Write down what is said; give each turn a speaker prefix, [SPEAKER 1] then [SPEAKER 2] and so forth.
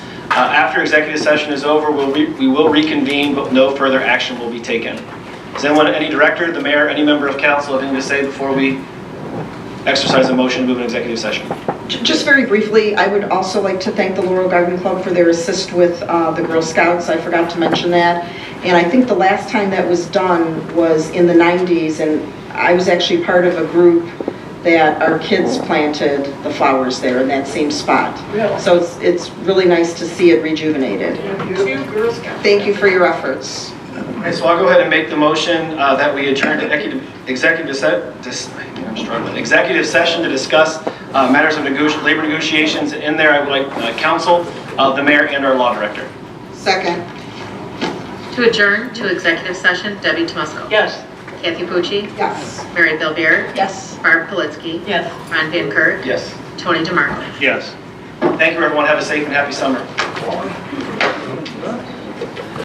[SPEAKER 1] Uh, After executive session is over, we'll re- we will reconvene, but no further action will be taken. Does anyone, any director, the mayor, any member of council have anything to say before we exercise a motion to move an executive session?
[SPEAKER 2] J- Just very briefly, I would also like to thank the Laurel Garden Club for their assist with uh, the Girl Scouts. I forgot to mention that. And I think the last time that was done was in the 90s, and I was actually part of a group that our kids planted the flowers there in that same spot.
[SPEAKER 3] Really?
[SPEAKER 2] So it's it's really nice to see it rejuvenated.
[SPEAKER 3] Two Girl Scouts.
[SPEAKER 2] Thank you for your efforts.
[SPEAKER 1] Okay, so I'll go ahead and make the motion uh, that we adjourn to executive- executive set, dis- I'm struggling, executive session to discuss uh, matters of negoti- labor negotiations. In there, I would like uh, counsel, uh, the mayor, and our law director.
[SPEAKER 2] Second.
[SPEAKER 4] To adjourn to executive session, Debbie Tomusko.
[SPEAKER 3] Yes.
[SPEAKER 4] Kathy Pucci.
[SPEAKER 2] Yes.
[SPEAKER 4] Mary Bill Beer.
[SPEAKER 2] Yes.
[SPEAKER 4] Barb Politzky.
[SPEAKER 3] Yes.
[SPEAKER 4] Ron Van Kirk.
[SPEAKER 1] Yes.
[SPEAKER 4] Tony DeMarco.
[SPEAKER 1] Yes. Thank you, everyone. Have a safe and happy summer.